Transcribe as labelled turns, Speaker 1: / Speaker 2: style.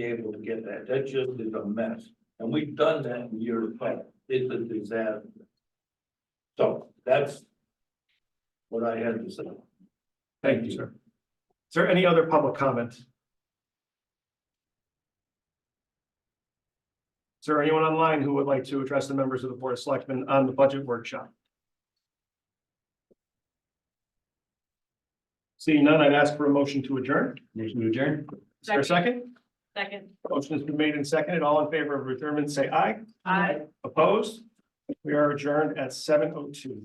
Speaker 1: be able to get that. That just is a mess. And we've done that in years past. It's a disaster. So that's what I had to say.
Speaker 2: Thank you, sir. Is there any other public comment? Is there anyone online who would like to address the members of the Board of Selectmen on the budget workshop? Seeing none, I'd ask for a motion to adjourn.
Speaker 3: Motion to adjourn?
Speaker 2: Is there a second?
Speaker 4: Second.
Speaker 2: Motion has been made and seconded. All in favor of adjournment, say aye.
Speaker 4: Aye.
Speaker 2: Opposed? We are adjourned at seven oh two.